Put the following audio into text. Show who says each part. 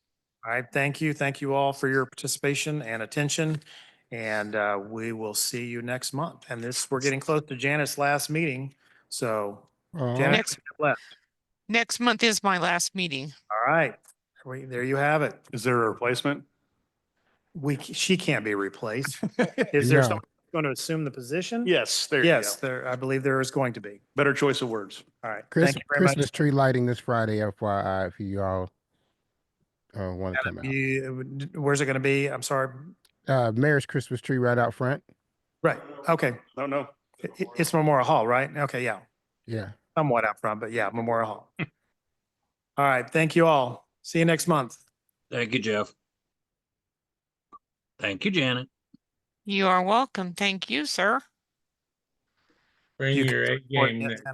Speaker 1: All right, thank you. Thank you all for your participation and attention. And uh, we will see you next month. And this, we're getting close to Janet's last meeting. So
Speaker 2: All right.
Speaker 1: Janet,
Speaker 3: Next-
Speaker 1: left.
Speaker 3: Next month is my last meeting.
Speaker 1: all right, We- there you have it.
Speaker 4: Is there a replacement?
Speaker 1: We, c- she can't be replaced. Is there
Speaker 2: No.
Speaker 1: someone going to assume the position?
Speaker 4: Yes, there you go.
Speaker 1: Yes, there, I believe there is going to be.
Speaker 4: Better choice of words.
Speaker 1: All right,
Speaker 2: Chris-
Speaker 1: thank you very much.
Speaker 2: Christmas tree lighting this Friday, FYI, if you all uh, want to come out.
Speaker 1: You- Where's it going to be? I'm sorry.
Speaker 2: Uh, Mayor's Christmas tree right out front.
Speaker 1: Right, okay.
Speaker 4: No, no.
Speaker 1: I- i- It's Memorial Hall, right? Okay, yeah.
Speaker 2: Yeah.
Speaker 1: somewhat out front, but yeah, Memorial Hall. All right, thank you all. See you next month.
Speaker 5: Thank you, Jeff. Thank you, Janet.
Speaker 3: You are welcome. Thank you, sir.
Speaker 6: Bring
Speaker 1: You can
Speaker 6: your A
Speaker 1: support
Speaker 6: game
Speaker 1: Nintendo.
Speaker 6: next